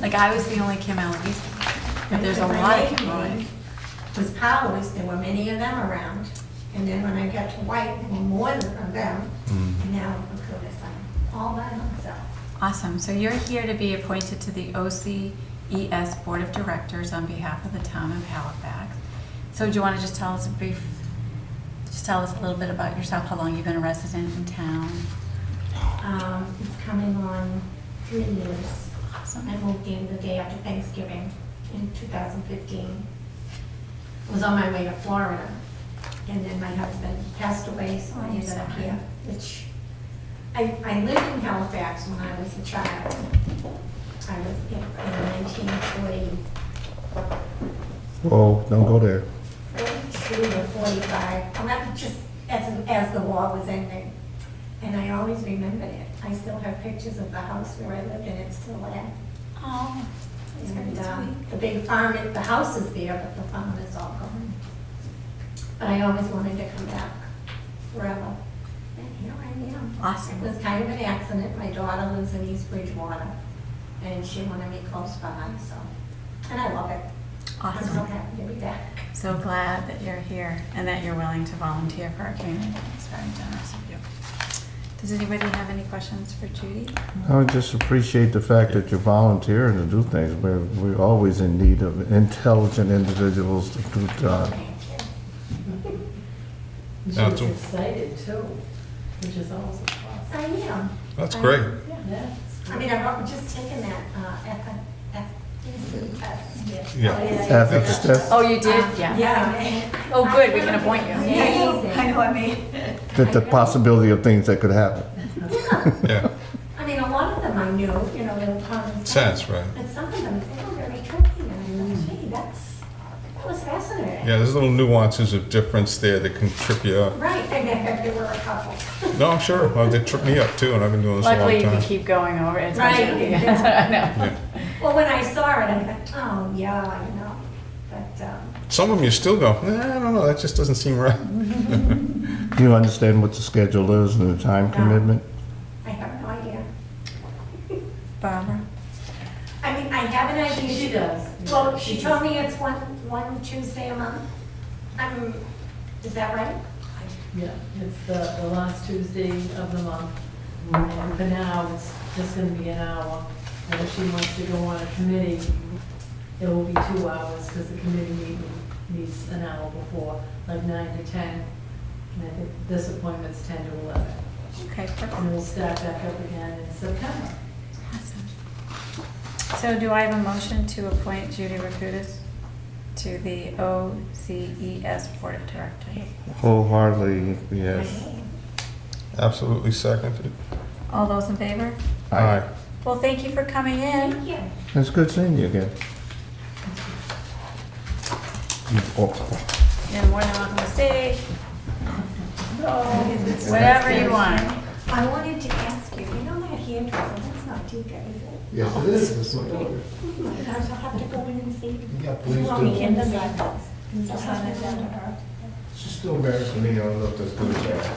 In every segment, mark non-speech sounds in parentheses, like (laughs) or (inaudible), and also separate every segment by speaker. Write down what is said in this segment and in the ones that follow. Speaker 1: Like I was the only Kim Eloise, but there's a lot of Kim Eloise.
Speaker 2: Was Powers, there were many of them around, and then when I got to White, there were more of them,
Speaker 3: Mm.
Speaker 2: and now look who this, I'm all by myself.
Speaker 1: Awesome, so you're here to be appointed to the OCES Board of Directors on behalf of the town of Halifax. So do you want to just tell us a brief, just tell us a little bit about yourself, how long you've been a resident in town?
Speaker 2: Um, it's coming on three years.
Speaker 1: Awesome.
Speaker 2: I moved in the day after Thanksgiving in 2015. I Was on my way to Florida, and then my husband passed away, so I
Speaker 1: Oh,
Speaker 2: ended up
Speaker 1: sorry.
Speaker 2: here, which, I, I lived in Halifax when I was a child. I was in in 1944
Speaker 3: Whoa, don't go there.
Speaker 2: Forty-two or forty-five, and that was just as, as the war was ending. And I always remembered it. I still have pictures of the house where I lived, and it's still there.
Speaker 1: Oh, that's very
Speaker 2: And, um,
Speaker 1: sweet.
Speaker 2: the big farm, it- the house is there, but the farm is all gone. But I always wanted to come back forever. And here I am. It
Speaker 1: Awesome,
Speaker 2: was kind of an accident. My daughter lives in East Bridgewater, and she wanted me close by, so, and I love it. I'm so
Speaker 1: awesome.
Speaker 2: happy to be back.
Speaker 1: So glad that you're here and that you're willing to volunteer for our community. It's very generous of you. Does anybody have any questions for Judy?
Speaker 3: I would just appreciate the fact that you're volunteering to do things. We're, we're always in need of intelligent individuals to do jobs.
Speaker 2: Thank you.
Speaker 4: She
Speaker 5: Yeah,
Speaker 4: was
Speaker 5: it's-
Speaker 4: excited too, which is always a plus.
Speaker 2: I am.
Speaker 5: That's
Speaker 1: Um,
Speaker 5: great.
Speaker 4: Yeah.
Speaker 2: I mean, I've al- just taken that uh, F- F- FDC test.
Speaker 5: Yeah.
Speaker 3: Ethics test,
Speaker 1: Oh, you did? Yeah.
Speaker 2: Yeah.
Speaker 1: Oh, good, we can appoint you.
Speaker 2: Amazing.
Speaker 6: I know what I mean.
Speaker 3: that the possibility of things that could happen.
Speaker 2: Yeah.
Speaker 5: Yeah,
Speaker 2: I mean, a lot of them I knew, you know, they were common sense.
Speaker 5: sense, right?
Speaker 2: But some of them, they were very tricky, and I thought, gee, that's, that was fascinating.
Speaker 5: Yeah, there's little nuances of difference there that can trip you up.
Speaker 2: Right, and then there were a couple.
Speaker 5: No, I'm sure. Well, they trip me up too, and I've been doing this a long
Speaker 1: Luckily, we
Speaker 5: time.
Speaker 1: keep going over it. (laughs)
Speaker 2: Right.
Speaker 1: I know.
Speaker 5: Yeah.
Speaker 2: (laughs) Well, when I saw it, I thought, oh, yeah, I know, but, um,
Speaker 5: Some of them you still go, nah, I don't know, that just doesn't seem right.
Speaker 3: Do you understand what the schedule is and the time commitment?
Speaker 2: I have no idea.
Speaker 1: Barbara?
Speaker 2: I mean, I have an idea.
Speaker 4: She does.
Speaker 2: Well, she told me it's one, one Tuesday a month. Um, is that right?
Speaker 4: Yeah, it's the, the last Tuesday of the month. And for now, it's just gonna be an hour. And if she wants to go on a committee, it will be two hours because the committee meeting meets an hour before, like nine to ten. And I think this appointment's ten to eleven.
Speaker 1: Okay,
Speaker 4: And
Speaker 1: perfect.
Speaker 4: we'll start back up again in September.
Speaker 1: Awesome. So do I have a motion to appoint Judy Rakutis to the OCES Board of Directors?
Speaker 3: Wholeheartedly, yes.
Speaker 5: Absolutely seconded.
Speaker 1: All those in favor?
Speaker 3: Aye.
Speaker 1: Well, thank you for coming in.
Speaker 2: Thank you.
Speaker 3: It's good seeing you again.
Speaker 1: You're more than welcome to stay. Whatever you want.
Speaker 2: I wanted to ask you, you know that hand dressing, that's not Tika, is it?
Speaker 7: Yes, it is, it's my daughter.
Speaker 2: Oh my gosh, I'll have to go in and see.
Speaker 7: Yeah, please
Speaker 2: Well, we
Speaker 7: do.
Speaker 2: can decide those. I'll have it down to her.
Speaker 7: She's still married to me, I don't know if that's good or bad.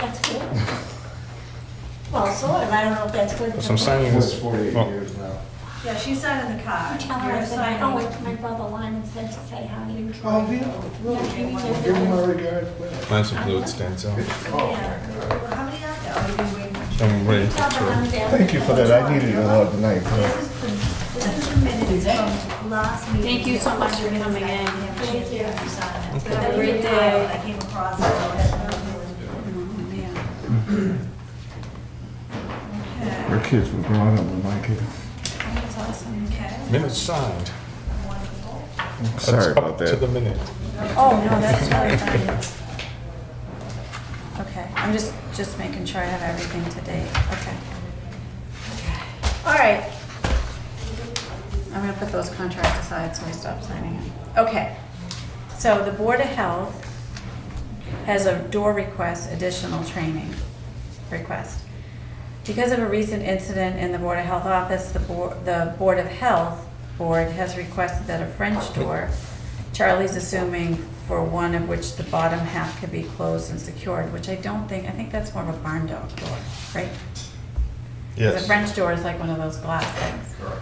Speaker 2: That's cool. Well, sort of, I don't know if that's good.
Speaker 5: So I'm signing
Speaker 7: Almost
Speaker 5: this.
Speaker 7: forty-eight
Speaker 5: Oh.
Speaker 7: years now.
Speaker 6: Yeah, she's not in the car.
Speaker 2: Tell her I
Speaker 6: You're
Speaker 2: said, I
Speaker 6: signing.
Speaker 2: went to my brother Lon and said to say how you.
Speaker 7: Oh, yeah, well, give my regards, well.
Speaker 5: Mine's a blue stands out.
Speaker 7: Oh,
Speaker 6: Yeah.
Speaker 7: my God.
Speaker 6: Well, How many are there? Are you waiting? for-
Speaker 5: I'm ready for
Speaker 2: Tell her I'm
Speaker 5: it.
Speaker 2: down.
Speaker 3: Thank you for that, I needed a lot tonight.
Speaker 6: This is the, this is the minutes from last meeting.
Speaker 1: Thank you so much for coming in.
Speaker 6: Thank you. sign it.
Speaker 1: Have a great day.
Speaker 6: I came across it. Okay.
Speaker 3: Her kids were growing up with my kids.
Speaker 1: That's awesome.
Speaker 6: Okay,
Speaker 5: Minutes signed.
Speaker 6: wonderful.
Speaker 5: That's
Speaker 3: Sorry about
Speaker 5: up To the
Speaker 3: that.
Speaker 5: minute.
Speaker 1: Oh, no, that's totally fine. Okay, I'm just, just making sure I have everything to date, okay. All right. I'm gonna put those contracts aside so I stop signing them. Okay, so the Board of Health has a door request, additional training request. Because of a recent incident in the Board of Health office, the Board, the Board of Health Board has requested that a French door, Charlie's assuming for one of which the bottom half can be closed and secured, which I don't think, I think that's more of a barn dog door, right? The
Speaker 5: Yes.
Speaker 1: French door is like one of those glass things.